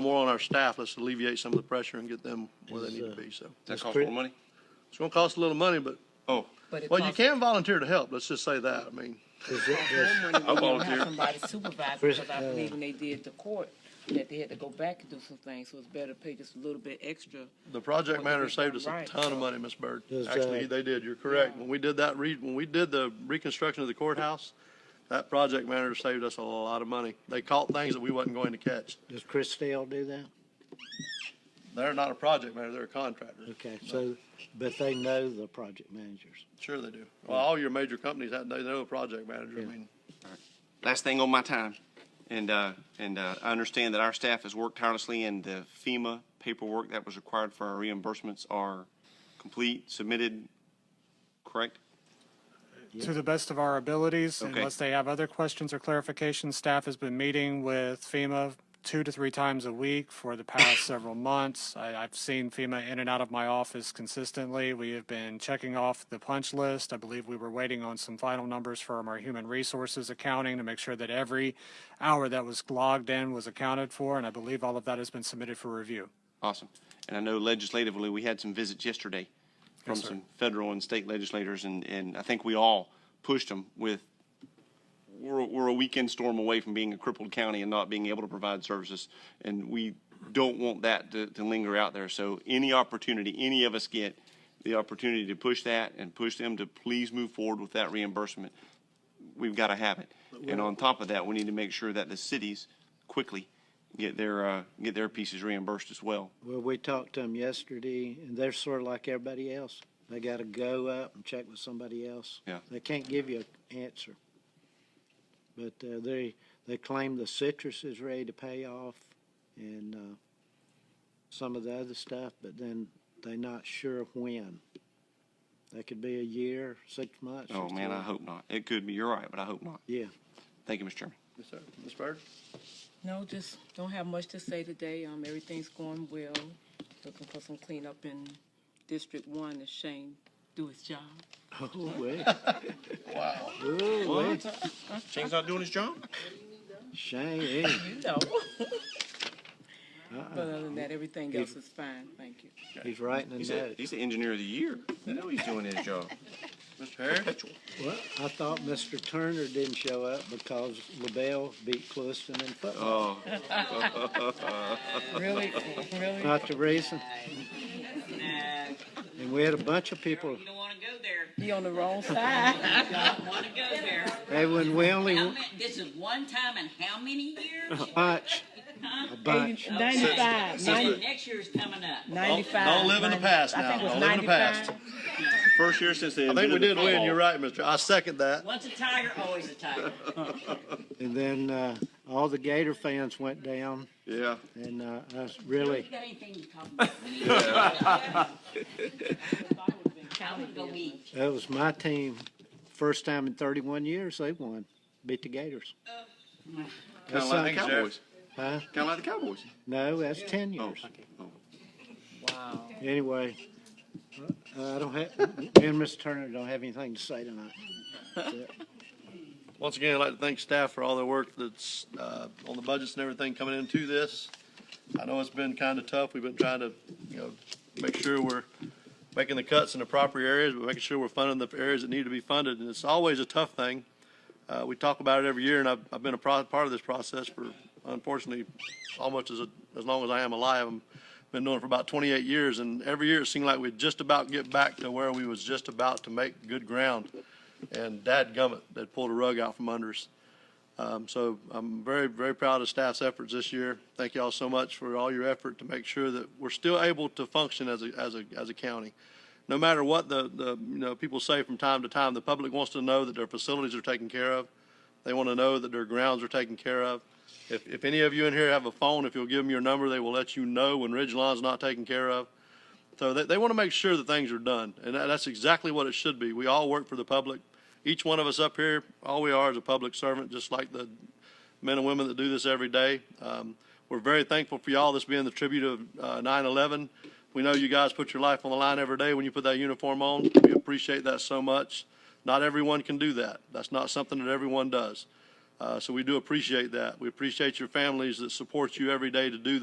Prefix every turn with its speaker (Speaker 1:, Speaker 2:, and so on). Speaker 1: more on our staff, let's alleviate some of the pressure and get them where they need to be, so.
Speaker 2: That costs more money?
Speaker 1: It's gonna cost a little money, but,
Speaker 2: Oh,
Speaker 3: But it
Speaker 1: well, you
Speaker 3: costs-
Speaker 1: can volunteer to help, let's just say that, I mean.
Speaker 4: Does it- does-
Speaker 3: Then when you don't
Speaker 2: volunteer.
Speaker 3: have somebody supervise,
Speaker 4: Chris,
Speaker 3: because I
Speaker 4: uh,
Speaker 3: believe when they did the court, that they had to go back and do some things, so it's better to pay just a little bit extra.
Speaker 1: The project manager saved us a
Speaker 3: Right.
Speaker 1: ton of money, Ms. Byrd.
Speaker 4: Does, uh,
Speaker 1: Actually, they did, you're correct. When we did that re, when we did the reconstruction of the courthouse, that project manager saved us a lot of money. They caught things that we wasn't going to catch.
Speaker 4: Does Chris Dale do that?
Speaker 1: They're not a project manager, they're a contractor.
Speaker 4: Okay, so, but they know the project managers.
Speaker 1: Sure they do. Well, all your major companies, that- they know a project manager, I
Speaker 4: Yeah.
Speaker 1: mean.
Speaker 2: last thing on my time. And, uh, and, uh, I understand that our staff has worked tirelessly and the FEMA paperwork that was required for our reimbursements are complete, submitted, correct?
Speaker 5: to the best of our abilities.
Speaker 2: Okay.
Speaker 5: Unless they have other questions or clarifications, staff has been meeting with FEMA two to three times a week for the past several months. I, I've seen FEMA in and out of my office consistently. We have been checking off the punch list. I believe we were waiting on some final numbers from our human resources accounting to make sure that every hour that was logged in was accounted for, and I believe all of that has been submitted for review.
Speaker 2: Awesome. And I know legislatively, we had some visits yesterday from
Speaker 5: Yes, sir.
Speaker 2: some federal and state legislators, and, and I think we all pushed them with, we're, we're a weekend storm away from being a crippled county and not being able to provide services, and we don't want that to, to linger out there. So any opportunity, any of us get the opportunity to push that and push them to please move forward with that reimbursement, we've got to have it. And on top of that, we need to make sure that the cities quickly get their, uh, get their pieces reimbursed as well.
Speaker 4: Well, we talked to them yesterday, and they're sort of like everybody else. They gotta go up and check with somebody else.
Speaker 2: Yeah.
Speaker 4: They can't give you an answer. But, uh, they, they claim the citrus is ready to pay off and, uh, some of the other stuff, but then they're not sure when. That could be a year, six months.
Speaker 2: Oh,
Speaker 4: or
Speaker 2: man, I
Speaker 4: something.
Speaker 2: hope not. It could be, you're right, but I hope not.
Speaker 4: Yeah.
Speaker 2: Thank you, Mr. Chairman.
Speaker 1: Yes, sir. Ms. Byrd?
Speaker 3: No, just don't have much to say today, um, everything's going well. Looking for some cleanup in District One, as Shane do his job.
Speaker 4: Oh, wait.
Speaker 1: Wow.
Speaker 4: Oh, wait.
Speaker 2: Shane's not doing his job?
Speaker 4: Shane, eh?
Speaker 3: You know. But other than that, everything else is fine, thank you.
Speaker 4: He's writing a
Speaker 2: He's a,
Speaker 4: note.
Speaker 2: he's the engineer of the year. I know he's doing his job.
Speaker 1: Mr. Harris?
Speaker 4: Well, I thought Mr. Turner didn't show up because LaBelle beat Clueston in football.
Speaker 2: Oh,
Speaker 3: Really, really?
Speaker 4: Not the reason. And we had a bunch of people.
Speaker 6: You don't want to go there.
Speaker 3: You on the wrong side.
Speaker 6: You don't want to go there.
Speaker 4: Hey, when we only
Speaker 6: How many, this is one time in how many years?
Speaker 4: a bunch, a bunch.
Speaker 3: Ninety-five, ninety,
Speaker 6: And next year's coming up.
Speaker 3: ninety-five.
Speaker 1: Don't live in the
Speaker 3: 90
Speaker 1: past
Speaker 3: I
Speaker 1: now.
Speaker 3: think it was
Speaker 1: Don't live in the
Speaker 3: 95.
Speaker 1: past.
Speaker 2: first year since they.
Speaker 1: I think we did win, you're right, Mr. I second that.
Speaker 6: Once a tiger, always a tiger.
Speaker 4: And then uh, all the Gator fans went down,
Speaker 2: Yeah.
Speaker 4: and uh, I was
Speaker 6: You
Speaker 4: really,
Speaker 6: got anything to talk about? We need to- I would go eat.
Speaker 4: that was my team. First time in 31 years they won, beat the Gators.
Speaker 2: Kind of like the Cowboys.
Speaker 4: Huh?
Speaker 2: Kind of like the Cowboys.
Speaker 4: No, that's 10
Speaker 2: Oh,
Speaker 4: years.
Speaker 2: oh.
Speaker 4: Anyway, uh, I don't have, me and Mr. Turner don't have anything to say tonight.
Speaker 1: Once again, I'd like to thank staff for all their work that's, uh, on the budgets and everything coming into this. I know it's been kind of tough. We've been trying to, you know, make sure we're making the cuts in the proper areas, but making sure we're funding the areas that need to be funded. And it's always a tough thing. Uh, we talk about it every year and I've, I've been a pro- part of this process for unfortunately, almost as, as long as I am alive. I've been doing it for about twenty-eight years and every year it seemed like we'd just about get back to where we was just about to make good ground and dadgummit, they pulled a rug out from under us. Um, so I'm very, very proud of staff's efforts this year. Thank you all so much for all your effort to make sure that we're still able to function as a, as a, as a county. No matter what the, the, you know, people say from time to time, the public wants to know that their facilities are taken care of. They want to know that their grounds are taken care of. If, if any of you in here have a phone, if you'll give them your number, they will let you know when Ridge Line's not taken care of. So they, they want to make sure that things are done, and that, that's exactly what it should be. We all work for the public. Each one of us up here, all we are is a public servant, just like the men and women that do this every day. Um, we're very thankful for y'all, this being the tribute of uh, 9/11. We know you guys put your life on the line every day when you put that uniform on. We appreciate that so much. Not everyone can do that. That's not something that everyone does. Uh, so we do appreciate that. We appreciate your families that support you every day to do